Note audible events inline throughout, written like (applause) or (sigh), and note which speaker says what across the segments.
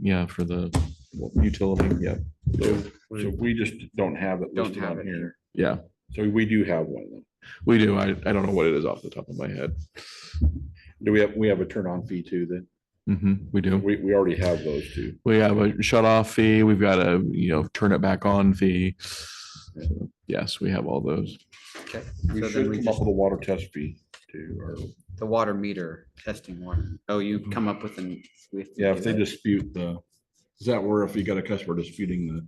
Speaker 1: yeah, for the utility, yeah,
Speaker 2: So so we just don't have it
Speaker 3: Don't
Speaker 2: listed
Speaker 3: have
Speaker 2: on
Speaker 3: it
Speaker 2: here.
Speaker 1: yeah,
Speaker 2: So we do have one of them.
Speaker 1: we do. I, I don't know what it is off the top of my head.
Speaker 2: Do we have, we have a turn on fee too then?
Speaker 1: hmm we do.
Speaker 2: We, we already have those two.
Speaker 1: We have a shut off fee. We've got a, you know, turn it back on fee. So, Yes, we have all those.
Speaker 3: Okay.
Speaker 2: We
Speaker 3: So
Speaker 2: should
Speaker 3: then we
Speaker 2: come up
Speaker 3: just,
Speaker 2: with a water test fee too, or,
Speaker 3: the water meter testing one. Oh, you come up with an. we have to
Speaker 2: Mhm. yeah,
Speaker 3: do
Speaker 2: if they
Speaker 3: that.
Speaker 2: dispute the, is that where if you got a customer disputing the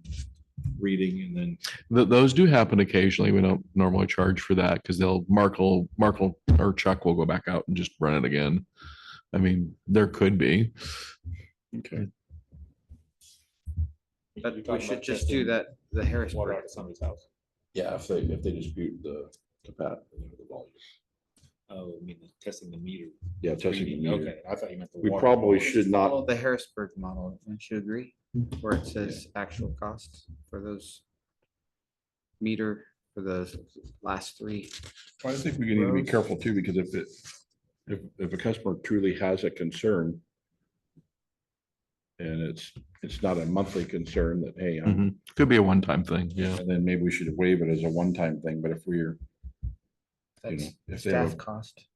Speaker 2: reading and then
Speaker 1: Th- those do happen occasionally. We don't normally charge for that because they'll Markle, Markle or Chuck will go back out and just run it again. I mean, there could be.
Speaker 2: Okay.
Speaker 4: You're
Speaker 3: But we
Speaker 4: talking
Speaker 3: should
Speaker 4: about
Speaker 3: just do
Speaker 4: testing
Speaker 3: that, the
Speaker 4: Water
Speaker 3: Harrisburg.
Speaker 4: out of somebody's house.
Speaker 2: Yeah, if they, if they dispute the capacity.
Speaker 4: Oh, I mean, testing the meter.
Speaker 2: Yeah, testing the meter.
Speaker 4: Okay, I thought you meant the
Speaker 2: We
Speaker 4: water.
Speaker 2: probably should not, Mm-hmm.
Speaker 3: Follow The Harrisburg model, I should agree, where it says actual costs for those meter for those last three.
Speaker 2: I think we need to be
Speaker 3: Rose.
Speaker 2: careful too, because if it, if, if a customer truly has a concern and it's, it's not a monthly concern that, hey, I'm
Speaker 1: Mhm. Could be a one-time thing. Yeah.
Speaker 2: And then maybe we should waive it as a one-time thing, but if we're, you know,
Speaker 3: That's
Speaker 2: if they
Speaker 3: staff
Speaker 2: have,
Speaker 3: cost.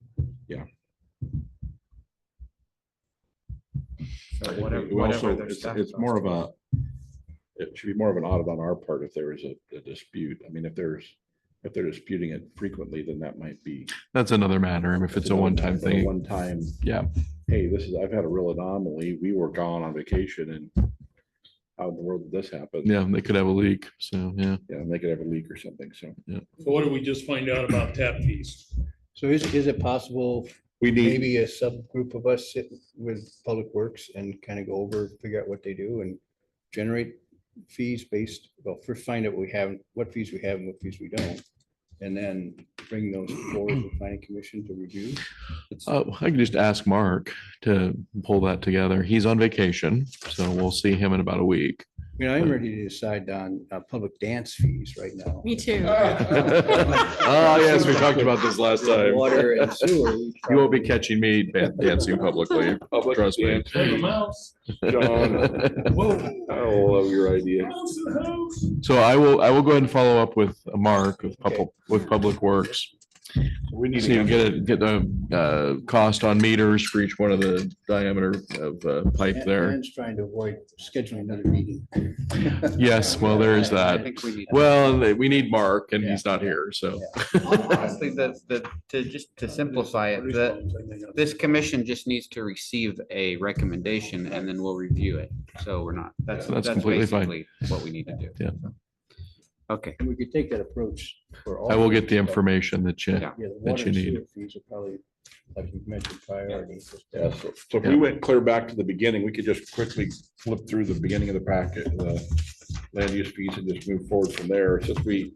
Speaker 2: Yeah.
Speaker 3: So
Speaker 2: I think
Speaker 3: whatever-
Speaker 2: we- we also-
Speaker 3: whatever their
Speaker 2: it's,
Speaker 3: staff
Speaker 2: it's more
Speaker 3: cost
Speaker 2: of a, it should be more of an audit on our part if there is a, a dispute. I mean, if there's, if they're disputing it frequently, then that might be.
Speaker 1: That's another matter. If it's a one-time
Speaker 2: But a
Speaker 1: thing,
Speaker 2: One-time,
Speaker 1: yeah.
Speaker 2: hey, this is, I've had a real anomaly. We were gone on vacation and how in the world did this happen?
Speaker 1: Yeah, they could have a leak. So, yeah.
Speaker 2: Yeah, and they could have a leak or something, so.
Speaker 5: So what did we just find out about tap fees?
Speaker 6: So is, is it possible,
Speaker 2: We (laughs) need,
Speaker 6: maybe a subgroup of us sit with Public Works and kind of go over, figure out what they do and generate fees based, well, first find out we have, what fees we have and what fees we don't. And then bring those forward to planning commission to review.
Speaker 1: Uh, I can just ask Mark to pull that together. He's on vacation, so we'll see him in about a week.
Speaker 6: You know, I'm ready to decide on uh, public dance fees right now.
Speaker 7: Me too.
Speaker 8: (laughs)
Speaker 1: Oh, yes, we talked about this last time.
Speaker 6: Water and
Speaker 1: You
Speaker 6: sewer.
Speaker 1: won't be catching me ban- dancing publicly,
Speaker 2: (laughs)
Speaker 1: trust me.
Speaker 2: John, (laughs) I love your idea.
Speaker 1: (laughs) So I will, I will go ahead and follow up with Mark with public, with Public Works.
Speaker 2: We need
Speaker 1: So
Speaker 2: to
Speaker 1: you
Speaker 2: get
Speaker 1: can get a, get the uh, cost on meters for each one of the diameter of uh, pipe there.
Speaker 6: Aaron's trying to avoid scheduling another meeting.
Speaker 1: Yes, well, there is
Speaker 3: (laughs) I
Speaker 1: that.
Speaker 3: think we need.
Speaker 1: Well, they- we need Mark and he's not here, so.
Speaker 3: Honestly, the, the, to just to simplify it, the, this commission just needs to receive a recommendation and then we'll review it. So we're not, that's,
Speaker 1: That's
Speaker 3: that's
Speaker 1: completely fine.
Speaker 3: basically what we need to do.
Speaker 1: Yeah.
Speaker 3: Okay,
Speaker 6: And we could take that approach for all.
Speaker 1: I will
Speaker 6: of
Speaker 1: get
Speaker 6: these,
Speaker 1: the
Speaker 6: but-
Speaker 1: information that you,
Speaker 3: Yeah.
Speaker 6: Yeah, the
Speaker 1: that
Speaker 6: water
Speaker 1: you
Speaker 6: and
Speaker 1: need.
Speaker 6: sewer fees are probably, like you mentioned, priority.
Speaker 2: Yeah, so so if we went clear back to the beginning, we could just quickly flip through the beginning of the packet, the land use fees and just move forward from there, since we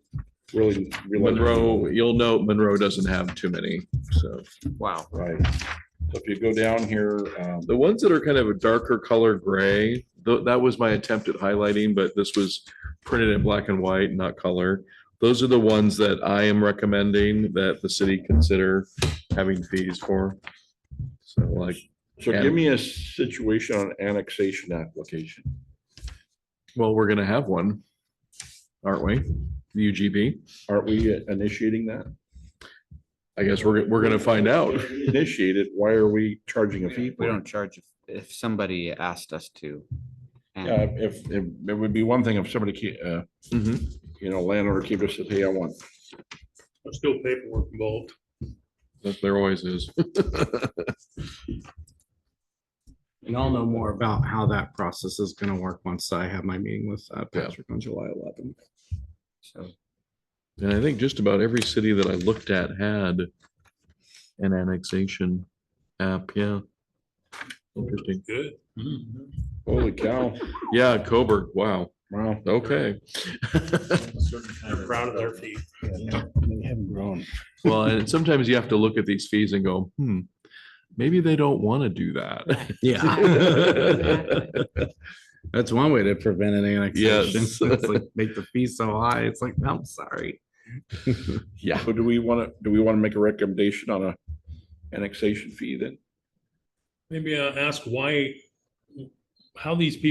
Speaker 2: really. realized-
Speaker 1: Monroe, you'll note Monroe doesn't have too many, so.
Speaker 3: wow.
Speaker 2: Right. So if you go down here, um,
Speaker 1: The ones that are kind of a darker color gray, tho- that was my attempt at highlighting, but this was printed in black and white, not color. Those are the ones that I am recommending that the city consider having fees for. So like,
Speaker 2: so give me a situation on annexation application.
Speaker 1: well, we're gonna have one, aren't we? UGB,
Speaker 2: Aren't we initiating that?
Speaker 1: I guess we're, we're gonna find
Speaker 2: (laughs)
Speaker 1: out.
Speaker 2: Initiated, why are we charging a fee?
Speaker 3: We
Speaker 2: for it?
Speaker 3: don't charge if, if somebody asked us to. and-
Speaker 2: Yeah, Uh, if, if, it would be one thing if somebody, ke- uh,
Speaker 1: Mhm.
Speaker 2: you know, landowner keeper says, hey, I want
Speaker 5: There's still paperwork involved.
Speaker 1: That there always is.
Speaker 8: And I'll know more about how that process is gonna work once I have my meeting with uh,
Speaker 1: Yeah.
Speaker 8: Patrick on July eleventh.
Speaker 3: So
Speaker 1: And I think just about every city that I looked at had an annexation app, yeah. Interesting.
Speaker 5: Good.
Speaker 2: Holy cow,
Speaker 1: Yeah, Coburg, wow,
Speaker 2: wow.
Speaker 1: okay.
Speaker 5: They're proud of their feet.
Speaker 6: They haven't grown.
Speaker 1: Well, and sometimes you have to look at these fees and go, hmm, maybe they don't want to do (laughs)
Speaker 2: (laughs)
Speaker 8: (laughs)
Speaker 1: that.
Speaker 8: That's one way to prevent an annexation.
Speaker 1: Yes.
Speaker 8: It's like Make the fee so high. It's like, I'm sorry.
Speaker 1: Yeah,
Speaker 2: So do we want to, do we want to make a recommendation on a annexation fee then?
Speaker 5: Maybe I ask why, uh, how these people